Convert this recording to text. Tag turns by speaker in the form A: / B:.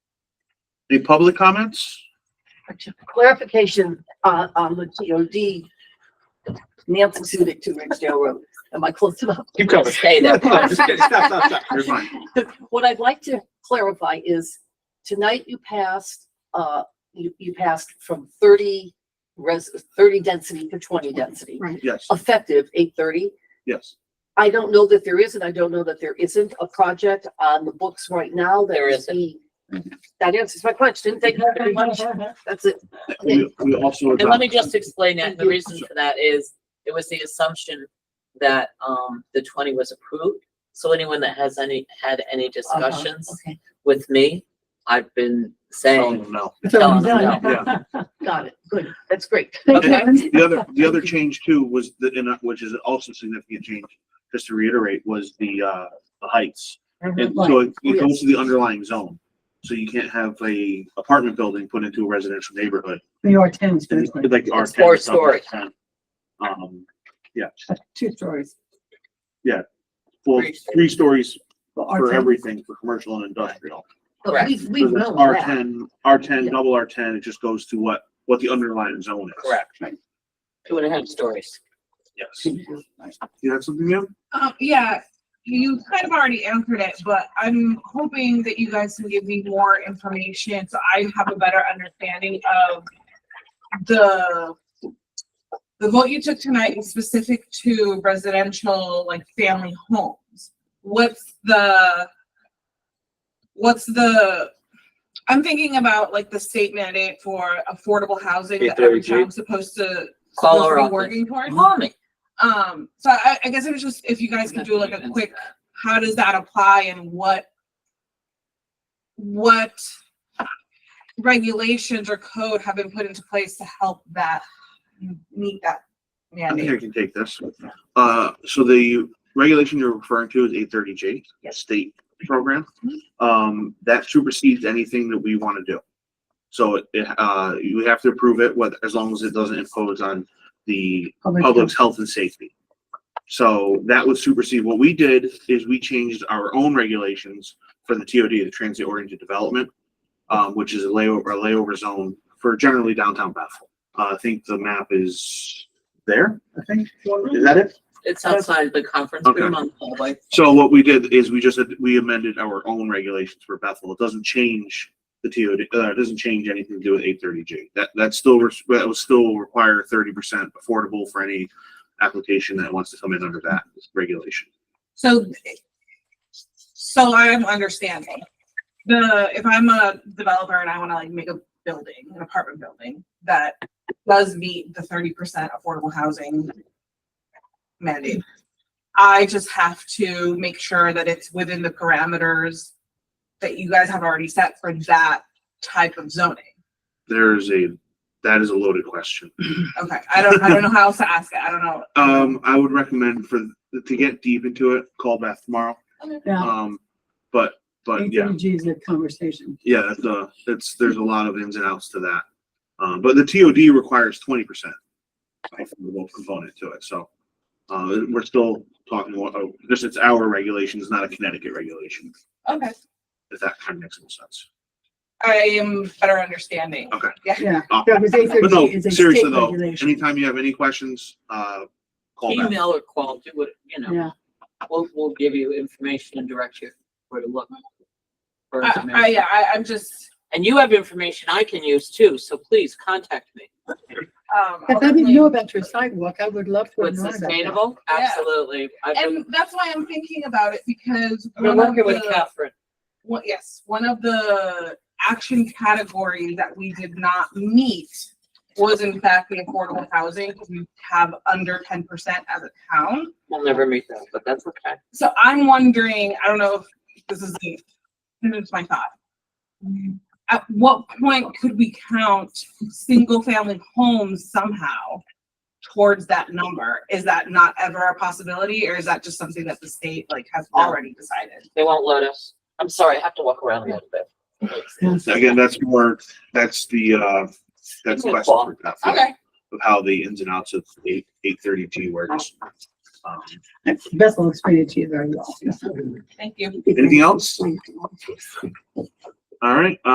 A: Any public comments?
B: clarification on, on the TOD. Nancy Sudik to Ridgedale Road. Am I close enough?
C: Keep coming.
B: Stay there.
C: Just kidding. Stop, stop, stop.
A: You're fine.
B: What I'd like to clarify is tonight you passed, uh, you, you passed from thirty res, thirty density to twenty density.
A: Yes,
B: Effective eight thirty.
A: yes.
B: I don't know that there is, and I don't know that there isn't a project on the books right now. There isn't. That answers my question. Thank you very much. That's it. Okay.
A: We, we also.
D: And let me
A: adopt-
D: just explain that. The reason for that is it was the assumption that um the twenty was approved. So anyone that has any, had any
E: Uh-huh.
D: discussions
B: Okay,
D: with me, I've been
A: Oh,
D: saying,
A: no.
D: tell them no.
A: Yeah.
B: got it. Good. That's great.
D: Okay.
A: The other, the other change too was the, and, uh, which is also a significant change, just to reiterate, was the, uh, the heights. And so it it goes to the underlying zone. So you can't have a apartment building put into a residential neighborhood.
F: New York tens,
A: And it's Like our.
D: It's four stories.
A: Um,
F: two stories.
A: well,
D: Three stories.
A: three stories
F: Well, our
A: for
F: ten-
A: everything for commercial and industrial.
B: But we, we
A: So that's
B: know
A: R
B: that.
A: ten, R ten,
B: Yeah.
A: double R ten, it just goes to what, what the underlying zone is.
D: Correct. Two and a half stories.
A: Yes. You have something, ma'am?
E: Um, yeah, you kind of already answered it, but I'm hoping that you guys can give me more information so I have a better understanding of the the vote you took tonight was specific to residential, like family homes. What's the what's the I'm thinking about like the state mandate for affordable housing that every
C: 830G.
E: town's supposed to
D: Call
E: supposed to
D: our
E: be
D: office.
E: working towards.
D: Call me.
E: Um, so I, I guess it was just, if you guys could do like a quick, how does that apply and what, what regulations or code have been put into place to help that, meet that
A: I think I
E: mandate?
A: can take this. Uh, so the regulation you're referring to is eight thirty J, state program. Um, that supersedes anything that we want to do. So it- it, uh, you have to approve it, whether, as long as it doesn't impose on the public's health and safety. So that would supersede, what we did is we changed our own regulations for the TOD, the Transit Oriented Development, um, which is a layover, a layover zone for generally downtown Bethel. Uh, I think the map is there, I think, is that it?
D: It's outside the conference
A: Okay.
D: room on the hallway.
A: So what we did is we just, we amended our own regulations for Bethel, it doesn't change the TOD, uh, it doesn't change anything to do with eight thirty G. That, that still, res- that would still require thirty percent affordable for any application that wants to come in under that regulation.
E: So, so I'm understanding. The, if I'm a developer and I wanna like make a building, an apartment building, that does meet the thirty percent affordable housing mandate. I just have to make sure that it's within the parameters that you guys have already set for that type of zoning.
A: There's a, that is a loaded question.
E: Okay, I don't, I don't know how else to ask it, I don't know.
A: Um, I would recommend for, to get deep into it, call Beth tomorrow.
F: Yeah,
A: Um, but, but yeah,
F: ATG is a conversation.
A: yeah, that's, uh, that's, there's a lot of ins and outs to that. Um, but the TOD requires twenty percent affordable component to it, so. Uh, we're still talking, about- oh, this it's our regulations, not a Connecticut regulation,
E: Okay,
A: if that kind of makes more sense.
E: I am better understanding.
F: Yeah.
A: Uh,
F: Yeah, because
A: But no,
F: 830 is a
A: seriously
F: state
A: though,
F: regulation.
A: anytime you have any questions, uh, call Beth.
D: Email or call, do what, you know,
F: Yeah,
D: we'll, we'll give you information and direct you where to look. for
E: I, I,
D: information.
E: Uh, yeah, I, I'm just.
D: And you have information I can use too, so please contact me.
E: Um,
F: if I didn't know about your sidewalk, I would love to have
D: With
F: known about that.
D: sustainable,
E: Yeah.
D: absolutely. I've been,
E: and that's why I'm thinking about it because
D: I've been
E: one of
D: working with
E: the,
D: Catherine.
E: one- yes, one of the action categories that we did not meet was in fact the affordable housing, because we have under ten percent as a town.
D: We'll never meet them, but that's okay.
E: So I'm wondering, I don't know if this is, the- this is my thought. At what point could we count single-family homes somehow towards that number? Is that not ever a possibility, or is that just something that the state like has already decided?
D: They won't let us. I'm sorry, I have to walk around a little bit. It's-
A: Again, that's more, that's the, uh, that's the question for Beth. Of how the ins and outs of eight, eight thirty G works. Um,
F: Beth will explain it to you very well.
E: Thank you.
A: Anything else? All right,